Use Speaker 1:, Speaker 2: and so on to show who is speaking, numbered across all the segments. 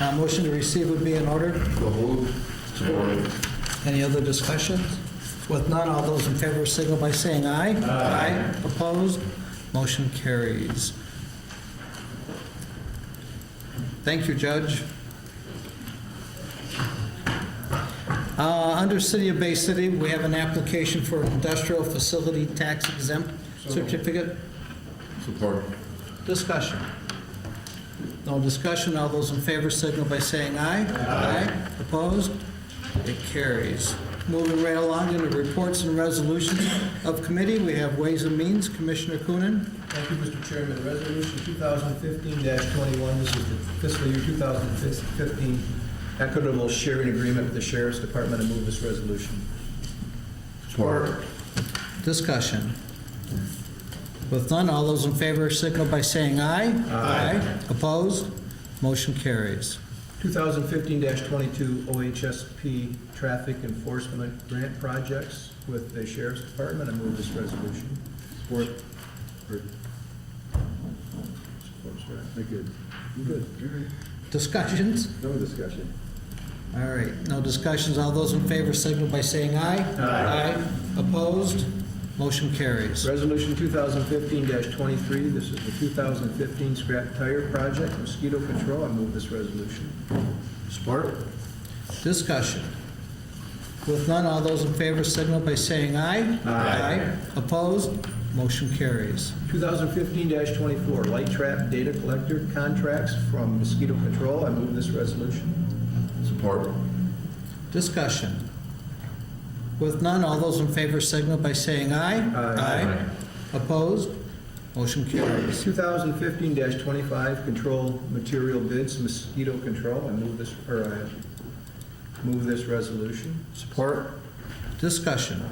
Speaker 1: Uh, Motion to receive would be in order.
Speaker 2: So moved. Support.
Speaker 1: Any other discussions? With none, all those in favor signal by saying aye. Aye. Opposed? Motion carries. Thank you, Judge. Uh, Under City of Bay City, we have an application for industrial facility tax exempt certificate.
Speaker 2: Support.
Speaker 1: Discussion. No discussion, all those in favor signal by saying aye. Aye. Opposed? It carries. Moving right along into reports and resolutions of committee, we have Ways and Means, Commissioner Coonan.
Speaker 3: Thank you, Mr. Chairman. Resolution 2015-21, this is the fiscal year 2015 equitable sharing agreement with the Sheriff's Department. I move this resolution.
Speaker 2: Support.
Speaker 1: Discussion. With none, all those in favor signal by saying aye. Aye. Opposed? Motion carries.
Speaker 3: 2015-22 OHSP Traffic Enforcement Grant Projects with the Sheriff's Department. I move this resolution.
Speaker 2: Support. Support, sorry. I good. Good. All right.
Speaker 1: Discussions?
Speaker 2: No discussion.
Speaker 1: All right, no discussions. All those in favor signal by saying aye. Aye. Opposed? Motion carries.
Speaker 3: Resolution 2015-23, this is the 2015 Scrap Tire Project, mosquito control. I move this resolution.
Speaker 2: Support.
Speaker 1: Discussion. With none, all those in favor signal by saying aye. Aye. Opposed? Motion carries.
Speaker 3: 2015-24, light trap data collector contracts from mosquito control. I move this resolution.
Speaker 2: Support.
Speaker 1: Discussion. With none, all those in favor signal by saying aye.
Speaker 3: Aye.
Speaker 1: Opposed? Motion carries.
Speaker 3: 2015-25, control material bids, mosquito control. I move this, or I move this resolution.
Speaker 2: Support.
Speaker 1: Discussion.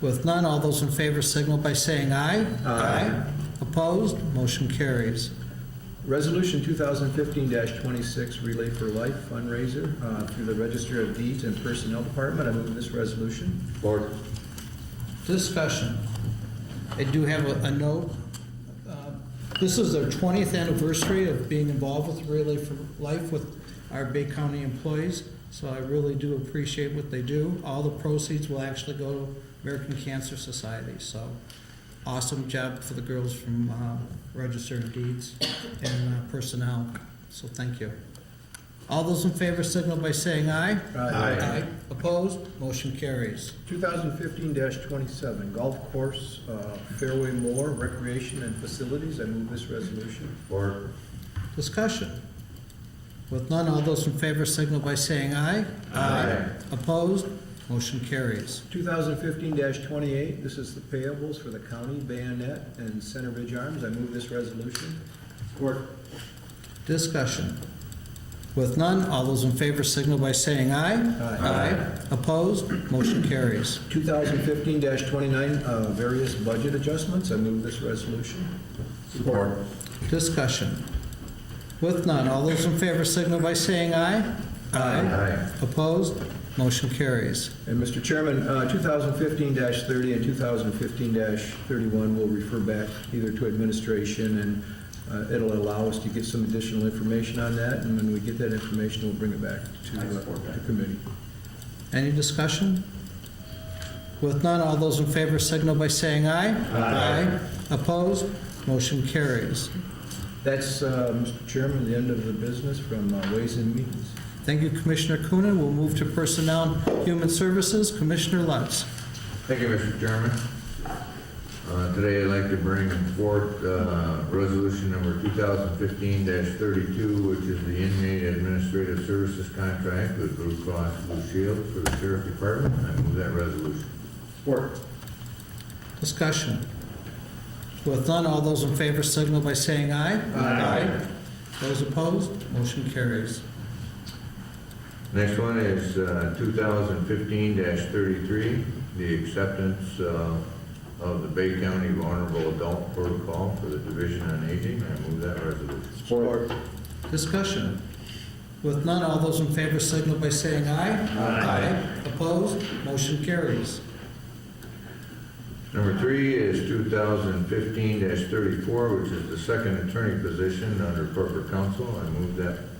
Speaker 1: With none, all those in favor signal by saying aye.
Speaker 3: Aye.
Speaker 1: Opposed? Motion carries.
Speaker 3: Resolution 2015-26, Relay for Life fundraiser uh, through the Register of Deeds and Personnel Department. I move this resolution.
Speaker 2: Support.
Speaker 1: Discussion. I do have a- a note. Uh, This is their 20th anniversary of being involved with Relay for Life with our Bay County employees, so I really do appreciate what they do. All the proceeds will actually go to American Cancer Society, so awesome job for the girls from uh, Register of Deeds and uh, Personnel, so thank you. All those in favor signal by saying aye. Aye. Opposed? Motion carries.
Speaker 3: 2015-27, Golf Course uh, Fairway Moore Recreation and Facilities. I move this resolution.
Speaker 2: Support.
Speaker 1: Discussion. With none, all those in favor signal by saying aye.
Speaker 2: Aye.
Speaker 1: Opposed? Motion carries.
Speaker 3: 2015-28, this is the payables for the county, Bayonet, and Center Ridge Arms. I move this resolution.
Speaker 2: Support.
Speaker 1: Discussion. With none, all those in favor signal by saying aye.
Speaker 3: Aye.
Speaker 1: Opposed? Motion carries.
Speaker 3: 2015-29, uh, various budget adjustments. I move this resolution.
Speaker 2: Support.
Speaker 1: Discussion. With none, all those in favor signal by saying aye. Opposed? Motion carries.
Speaker 3: And Mr. Chairman, uh, 2015-30 and 2015-31 will refer back either to administration, and uh, it'll allow us to get some additional information on that, and when we get that information, we'll bring it back to uh, the committee.
Speaker 1: Any discussion? With none, all those in favor signal by saying aye. Aye. Opposed? Motion carries.
Speaker 3: That's, uh, Mr. Chairman, the end of the business from uh, Ways and Means.
Speaker 1: Thank you, Commissioner Coonan. We'll move to Personnel and Human Services, Commissioner Lutz.
Speaker 4: Thank you, Mr. Chairman. Uh, Today, I'd like to bring forth uh, Resolution Number 2015-32, which is the inmate administrative services contract with Blue Cross Blue Shield for the Sheriff Department. I move that resolution.
Speaker 2: Support.
Speaker 1: Discussion. With none, all those in favor signal by saying aye. Aye. Those opposed, motion carries.
Speaker 4: Next one is uh, 2015-33, the acceptance uh, of the Bay County Vulnerable Adult Protocol for the Division on Aging. I move that resolution.
Speaker 2: Support.
Speaker 1: Discussion. With none, all those in favor signal by saying aye. Aye. Opposed, motion carries.
Speaker 4: Number three is 2015-34, which is the second attorney position under corporate counsel. I move that